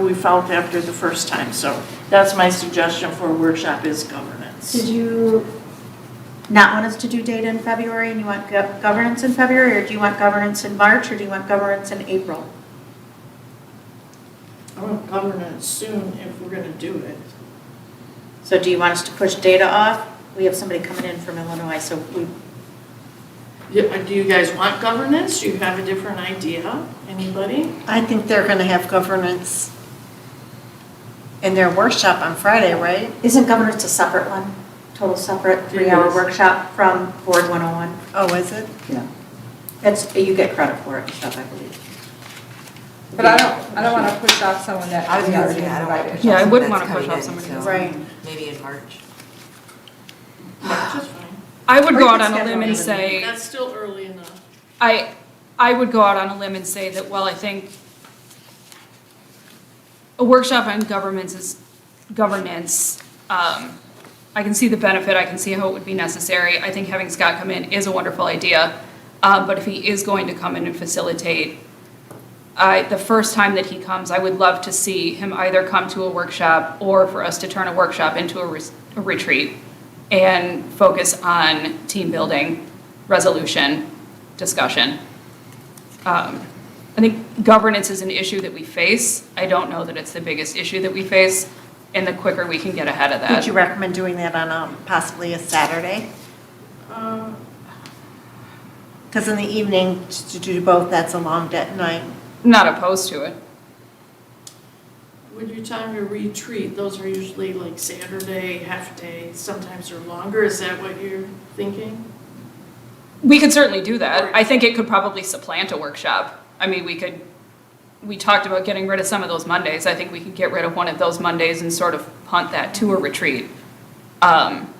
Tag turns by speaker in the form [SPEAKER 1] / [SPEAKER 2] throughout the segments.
[SPEAKER 1] we felt after the first time. So that's my suggestion for a workshop is
[SPEAKER 2] Did
[SPEAKER 1] governance.
[SPEAKER 2] you not want us to do data in February and you want gov- governance in February? Or do you want governance in March or do you want governance in April?
[SPEAKER 1] I want governance soon if we're going to do it.
[SPEAKER 2] So do you want us to push data off? We have somebody coming in from Illinois, so we,
[SPEAKER 1] Yeah, Do you guys want governance? Do you have a different idea? Anybody?
[SPEAKER 3] I think they're going to have governance in their workshop on Friday, right?
[SPEAKER 2] isn't governance a separate one? Total separate, three-hour
[SPEAKER 1] is.
[SPEAKER 2] workshop from Board 101?
[SPEAKER 3] Oh, is it?
[SPEAKER 2] That's, you get credit for it, and stuff, I believe.
[SPEAKER 4] But I don't, I don't want to push off someone that
[SPEAKER 5] I was
[SPEAKER 4] we
[SPEAKER 5] gonna
[SPEAKER 4] already
[SPEAKER 5] say, I don't wanna push
[SPEAKER 4] invited.
[SPEAKER 5] off
[SPEAKER 6] Yeah, I wouldn't
[SPEAKER 5] something
[SPEAKER 6] wanna
[SPEAKER 5] that's
[SPEAKER 6] push off
[SPEAKER 5] coming in,
[SPEAKER 6] somebody
[SPEAKER 5] so
[SPEAKER 3] Right.
[SPEAKER 5] Maybe in March.
[SPEAKER 1] That's just fine.
[SPEAKER 6] I would
[SPEAKER 2] Or
[SPEAKER 6] go
[SPEAKER 2] you
[SPEAKER 6] out
[SPEAKER 2] could
[SPEAKER 6] on a
[SPEAKER 2] schedule
[SPEAKER 6] limb and
[SPEAKER 2] another
[SPEAKER 6] say,
[SPEAKER 1] That's still early enough.
[SPEAKER 6] I, I would go out on a limb and say that, well, I think a workshop on governments is, governance, um, I can see the benefit, I can see how it would be necessary. I think having Scott come in is a wonderful idea, uh, but if he is going to come in and facilitate, I, the first time that he comes, I would love to see him either come to a workshop or for us to turn a workshop into a res- a retreat and focus on team building, resolution, discussion. Um, I think governance is an issue that we face. I don't know that it's the biggest issue that we face, and the quicker we can get ahead of
[SPEAKER 3] Would
[SPEAKER 6] that.
[SPEAKER 3] you recommend doing that on um, possibly a Saturday?
[SPEAKER 1] Um,
[SPEAKER 3] Because in the evening, t- to do both, that's a long de- night.
[SPEAKER 6] Not opposed to it.
[SPEAKER 1] When you're talking a retreat, those are usually like Saturday, half day, sometimes they're longer, is that what you're thinking?
[SPEAKER 6] We could certainly do that. I think it could probably supplant a workshop. I mean, we could, we talked about getting rid of some of those Mondays. I think we could get rid of one of those Mondays and sort of punt that to a retreat. Um,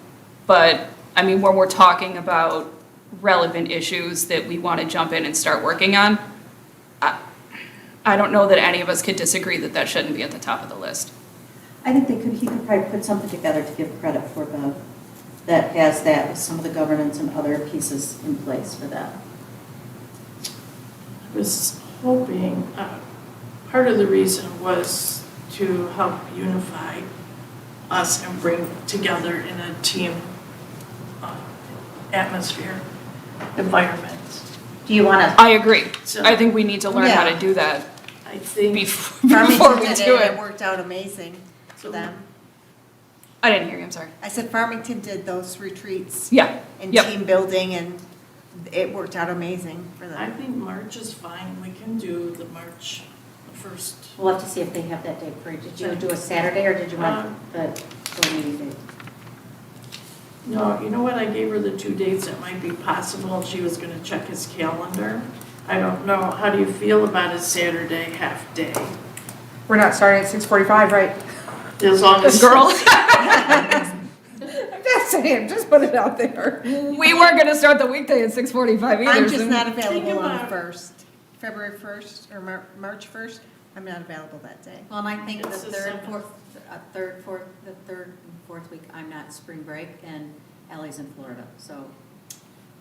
[SPEAKER 6] But, I mean, when we're talking about relevant issues that we want to jump in and start working on, I I don't know that any of us could disagree that that shouldn't be at the top of the list.
[SPEAKER 2] I think they could, he could probably put something together to give credit for the, that has that, with some of the governance and other pieces in place for that.
[SPEAKER 1] I was hoping, uh, part of the reason was to help unify us and bring together in a team uh, atmosphere, environment.
[SPEAKER 2] Do you want to,
[SPEAKER 6] I agree.
[SPEAKER 1] So
[SPEAKER 6] I think we need to learn how to
[SPEAKER 3] Yeah.
[SPEAKER 6] do that
[SPEAKER 1] I think,
[SPEAKER 6] bef- before we
[SPEAKER 3] Farmington did
[SPEAKER 6] do
[SPEAKER 3] and
[SPEAKER 6] it.
[SPEAKER 3] It worked out amazing for
[SPEAKER 1] So-
[SPEAKER 3] them.
[SPEAKER 6] I didn't hear you, I'm sorry.
[SPEAKER 3] I said Farmington did those retreats
[SPEAKER 6] Yeah,
[SPEAKER 3] and
[SPEAKER 6] Yep.
[SPEAKER 3] team building, and it worked out amazing for
[SPEAKER 1] I
[SPEAKER 3] them.
[SPEAKER 1] think March is fine, we can do the March first.
[SPEAKER 2] we'll have to see if they have that date for you. Did you do a Saturday or did you want the board meeting date?
[SPEAKER 1] No, you know what, I gave her the two dates that might be possible, and she was gonna check his calendar. I don't know, how do you feel about a Saturday half-day?
[SPEAKER 4] We're not starting at six forty-five, right?
[SPEAKER 1] As long as.
[SPEAKER 6] Girl,
[SPEAKER 4] I'm just saying, just put it out there.
[SPEAKER 6] we weren't gonna start the weekday at six forty-five either.
[SPEAKER 3] I'm just
[SPEAKER 6] so-
[SPEAKER 3] not available on
[SPEAKER 1] about
[SPEAKER 3] the
[SPEAKER 1] it.
[SPEAKER 3] 1st, February 1st or Mar- March 1st. I'm not available that day.
[SPEAKER 7] Well, and I think the
[SPEAKER 1] It's the
[SPEAKER 7] third,
[SPEAKER 1] seventh.
[SPEAKER 7] fourth, uh, third, fourth, the third and fourth week, I'm not spring break, and Ally's in Florida, so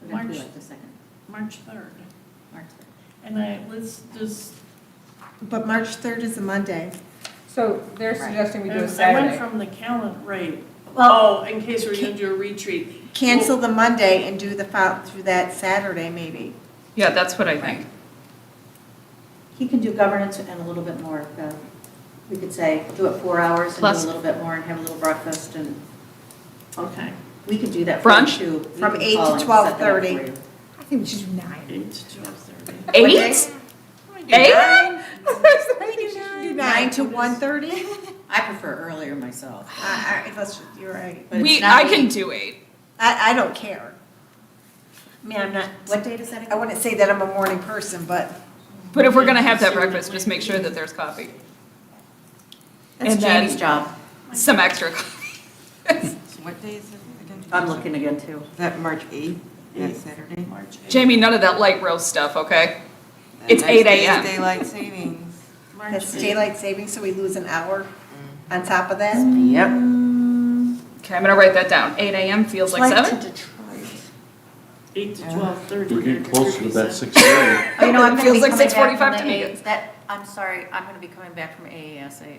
[SPEAKER 7] we're gonna be
[SPEAKER 1] March-
[SPEAKER 7] like the second,
[SPEAKER 1] March third.
[SPEAKER 7] March.
[SPEAKER 1] And I, let's just,
[SPEAKER 3] But March 3rd is a Monday.
[SPEAKER 4] So they're suggesting we do a
[SPEAKER 1] um, I went
[SPEAKER 4] Saturday.
[SPEAKER 1] from the calendar, right.
[SPEAKER 3] Well,
[SPEAKER 1] Oh, in case we're gonna do a retreat.
[SPEAKER 3] cancel the Monday and do the, fol- through that Saturday maybe.
[SPEAKER 6] Yeah, that's what I think.
[SPEAKER 2] He can do governance and a little bit more. of the- We could say, do it four hours and do
[SPEAKER 6] Plus-
[SPEAKER 2] a little bit more and have a little breakfast and
[SPEAKER 1] Okay,
[SPEAKER 2] we could do that. for you,
[SPEAKER 6] Brunch?
[SPEAKER 2] too. We
[SPEAKER 3] From
[SPEAKER 2] can
[SPEAKER 3] 8 to
[SPEAKER 2] call and set that up for
[SPEAKER 3] 12:30.
[SPEAKER 2] you.
[SPEAKER 4] I think we should do nine.
[SPEAKER 1] eight to twelve thirty.
[SPEAKER 6] Eight? Eight?
[SPEAKER 4] I think we should do
[SPEAKER 3] Nine
[SPEAKER 4] nine.
[SPEAKER 3] to 1:30?
[SPEAKER 7] I prefer earlier myself,
[SPEAKER 3] I- I- that's- You're right.
[SPEAKER 7] but it's
[SPEAKER 6] We,
[SPEAKER 7] not
[SPEAKER 6] I can
[SPEAKER 7] eight.
[SPEAKER 6] do eight.
[SPEAKER 3] I, I don't care. I mean, I'm not,
[SPEAKER 7] What date is that again?
[SPEAKER 3] I wouldn't say that I'm a morning person, but
[SPEAKER 6] But if we're gonna have that breakfast, just make sure that there's coffee.
[SPEAKER 7] That's
[SPEAKER 6] And then-
[SPEAKER 7] Jamie's job,
[SPEAKER 6] Some extra coffee.
[SPEAKER 5] So what day is it again?
[SPEAKER 7] I'm looking again too.
[SPEAKER 5] Is that March 8th?
[SPEAKER 1] Eight.
[SPEAKER 5] That Saturday?
[SPEAKER 1] March eighth.
[SPEAKER 6] Jamie, none of that light roast stuff, okay? It's
[SPEAKER 5] The next
[SPEAKER 6] 8
[SPEAKER 5] day is
[SPEAKER 6] a.m..
[SPEAKER 5] Daylight savings.
[SPEAKER 1] March
[SPEAKER 3] that's
[SPEAKER 1] eighth.
[SPEAKER 3] daylight savings, so we lose an hour on top of that.
[SPEAKER 6] Mm.
[SPEAKER 5] Yep.
[SPEAKER 2] Oh,
[SPEAKER 6] Okay, I'm gonna write that down. Eight AM feels like
[SPEAKER 3] Flight
[SPEAKER 6] seven?
[SPEAKER 3] to Detroit.
[SPEAKER 1] eight to twelve thirty.
[SPEAKER 8] We're getting closer to that six thirty.
[SPEAKER 2] Oh, you know, I'm gonna be
[SPEAKER 6] Feels like
[SPEAKER 2] coming back
[SPEAKER 6] 6:45
[SPEAKER 2] from
[SPEAKER 6] to
[SPEAKER 2] the
[SPEAKER 6] me.
[SPEAKER 2] A- That, I'm sorry, I'm gonna be coming back from AASA